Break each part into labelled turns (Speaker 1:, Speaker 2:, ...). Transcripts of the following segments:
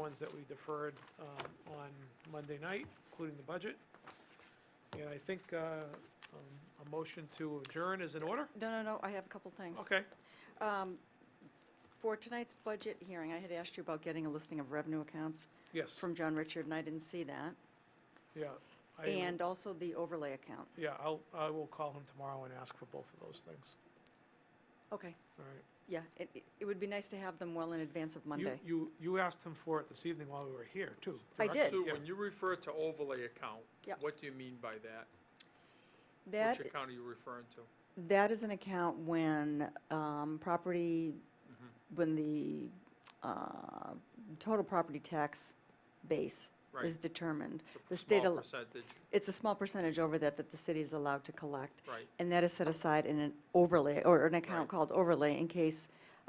Speaker 1: ones that we deferred um, on Monday night, including the budget. And I think uh, um, a motion to adjourn is in order?
Speaker 2: No, no, no, I have a couple things. Um,
Speaker 1: Okay,
Speaker 2: For tonight's budget hearing, I had asked you about getting a listing of revenue accounts
Speaker 1: yes,
Speaker 2: from John Richard, and I didn't see that.
Speaker 1: yeah. I-
Speaker 2: And also the overlay account.
Speaker 1: Yeah, I'll, I will call him tomorrow and ask for both of those things,
Speaker 2: Okay,
Speaker 1: all right?
Speaker 2: yeah, it, it- it would be nice to have them well in advance of
Speaker 1: You-
Speaker 2: Monday.
Speaker 1: You, you asked him for it this evening while we were here, too.
Speaker 2: I
Speaker 1: correct?
Speaker 2: did.
Speaker 3: Sue,
Speaker 1: Yeah.
Speaker 3: when you refer to overlay account,
Speaker 2: Yep.
Speaker 3: what do you mean by that?
Speaker 2: That,
Speaker 3: Which account are you referring to?
Speaker 2: that is an account when, um, property,
Speaker 1: Mm-hmm.
Speaker 2: when the, uh, total property tax base
Speaker 3: Right.
Speaker 2: is determined. The
Speaker 3: It's a
Speaker 2: state,
Speaker 3: small
Speaker 2: al-
Speaker 3: percentage,
Speaker 2: it's a small percentage over that that the city is allowed to collect.
Speaker 3: right.
Speaker 2: And that is set aside in an overlay, or an
Speaker 3: Right.
Speaker 2: account called overlay, in case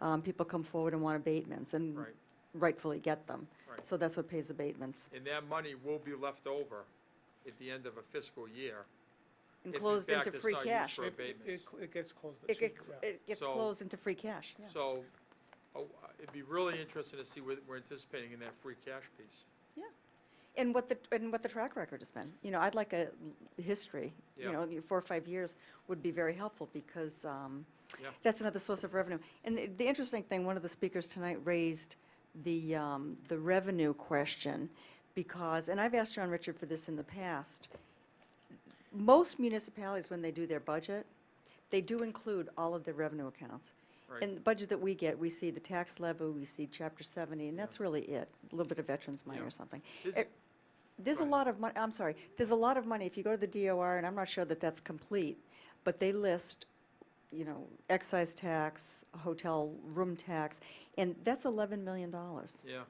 Speaker 2: um, people come forward and want abatements, and
Speaker 3: Right.
Speaker 2: rightfully get them.
Speaker 3: Right.
Speaker 2: So that's what pays abatements.
Speaker 3: And that money will be left over at the end of a fiscal year.
Speaker 2: And
Speaker 3: If in
Speaker 2: closed
Speaker 3: fact
Speaker 2: into
Speaker 3: it's
Speaker 2: free
Speaker 3: not used
Speaker 2: cash.
Speaker 3: for
Speaker 1: It-
Speaker 3: abatements.
Speaker 1: It, it gets closed
Speaker 2: It
Speaker 1: this
Speaker 2: get-
Speaker 1: evening, yeah.
Speaker 2: it gets
Speaker 3: So-
Speaker 2: closed into free cash. yeah.
Speaker 3: So, oh, it'd be really interesting to see what we're anticipating in that free cash piece.
Speaker 2: And what the, and what the track record has been. You know, I'd like a history, you
Speaker 3: Yeah.
Speaker 2: know, four or five years would be very helpful, because um,
Speaker 3: Yeah.
Speaker 2: that's another source of revenue. And the- the interesting thing, one of the speakers tonight raised the, um, the revenue question, because, and I've asked John Richard for this in the past, most municipalities, when they do their budget, they do include all of their revenue accounts.
Speaker 3: Right.
Speaker 2: And the budget that we get, we see the tax levy, we see Chapter 70, and that's really it, a little bit of veterans money
Speaker 3: Yeah.
Speaker 2: or something.
Speaker 3: Is-
Speaker 2: Eh, There's a
Speaker 3: Right.
Speaker 2: lot of money, I'm sorry, there's a lot of money, if you go to the DOR, and I'm not sure that that's complete, but they list, you know, excise tax, hotel room tax, and that's $11 million.
Speaker 3: Yeah.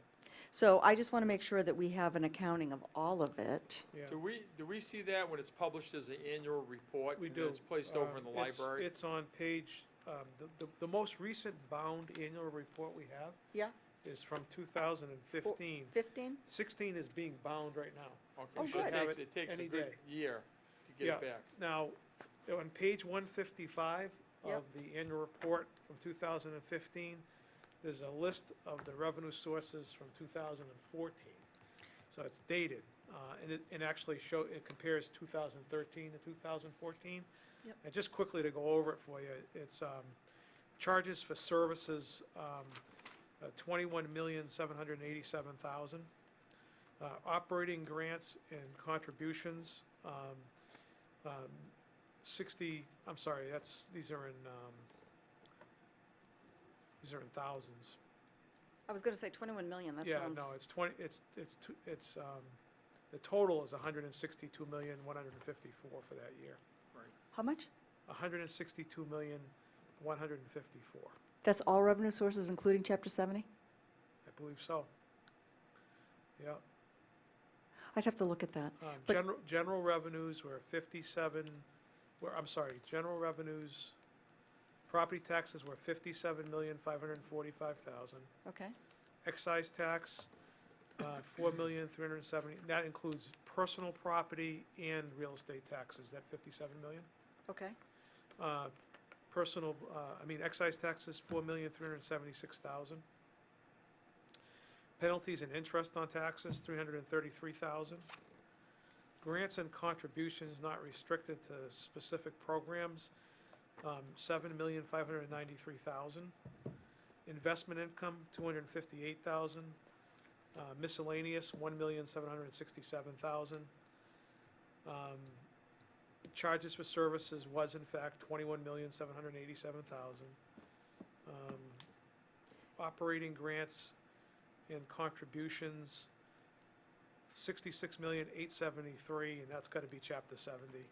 Speaker 2: So I just want to make sure that we have an accounting of all of it.
Speaker 1: Yeah.
Speaker 3: Do we, do we see that when it's published as an annual report?
Speaker 1: We
Speaker 3: and then
Speaker 1: do.
Speaker 3: it's placed over
Speaker 1: Um,
Speaker 3: in the
Speaker 1: it's-
Speaker 3: library?
Speaker 1: It's on page, um, the, the, the most recent bound annual report we have
Speaker 2: Yeah,
Speaker 1: is from 2015.
Speaker 2: 15?
Speaker 1: 16 is being bound right now.
Speaker 2: Oh,
Speaker 3: Okay, so
Speaker 2: good.
Speaker 3: it takes, it takes a
Speaker 1: Any
Speaker 3: good
Speaker 1: day.
Speaker 3: year to
Speaker 1: Yeah.
Speaker 3: get it back.
Speaker 1: Now, f- on page 155 of
Speaker 2: Yep.
Speaker 1: the annual report from 2015, there's a list of the revenue sources from 2014. So it's dated, uh, and it, and actually show, it compares 2013 to 2014.
Speaker 2: Yep.
Speaker 1: And just quickly to go over it for you, it's um, charges for services, um, uh, 21,787,000. Uh, Operating grants and contributions, um, um, 60, I'm sorry, that's, these are in, um, these are in thousands.
Speaker 2: I was going to say 21 million, that
Speaker 1: Yeah,
Speaker 2: sounds.
Speaker 1: no, it's 20, it's, it's, two- it's, um, the total is 162,154 for that year.
Speaker 2: How much?
Speaker 1: 162,154,
Speaker 2: That's all revenue sources, including Chapter 70?
Speaker 1: I believe so. Yeah.
Speaker 2: I'd have to look at that.
Speaker 1: Um,
Speaker 2: But-
Speaker 1: General, general revenues were fifty-seven, were, I'm sorry, general revenues, property taxes were fifty-seven million, five hundred and forty-five thousand.
Speaker 2: Okay.
Speaker 1: Excise tax, uh, four million, three hundred and seventy, that includes personal property and real estate taxes, that fifty-seven million.
Speaker 2: Okay.
Speaker 1: Uh, personal, uh, I mean, excise taxes, four million, three hundred and seventy-six thousand. Penalties and interest on taxes, three hundred and thirty-three thousand. Grants and contributions not restricted to specific programs, um, seven million, five hundred and ninety-three thousand. Investment income, two hundred and fifty-eight thousand. Uh, miscellaneous, one million, seven hundred and sixty-seven thousand. Um, charges for services was in fact twenty-one million, seven hundred and eighty-seven thousand. Um, Operating grants and contributions, sixty-six million, eight seventy-three, and that's gotta be chapter seventy.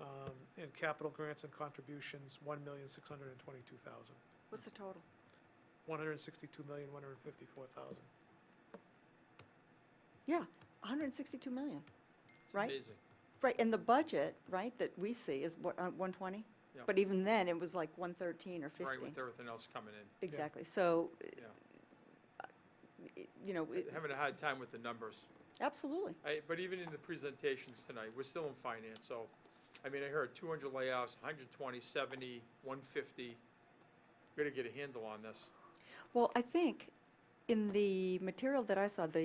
Speaker 1: Um, And capital grants and contributions, one million, six hundred and twenty-two thousand,
Speaker 2: What's the total?
Speaker 1: one hundred and sixty-two million, one hundred and fifty-four thousand.
Speaker 2: Yeah, 162 million.
Speaker 3: It's
Speaker 2: Right.
Speaker 3: amazing.
Speaker 2: Right, and the budget, right, that we see is what, uh, 120?
Speaker 3: Yeah.
Speaker 2: But even then, it was like 113 or
Speaker 3: Right, with
Speaker 2: 15.
Speaker 3: everything else coming in.
Speaker 2: Exactly, so,
Speaker 3: Yeah.
Speaker 2: it- you know, it-
Speaker 3: Having a hard time with the numbers.
Speaker 2: absolutely.
Speaker 3: I, but even in the presentations tonight, we're still in finance, so, I mean, I heard two hundred layoffs, 120, 70, 150. seventy, one fifty. Gotta get a handle on this.
Speaker 2: Well, I think in the material that I saw, the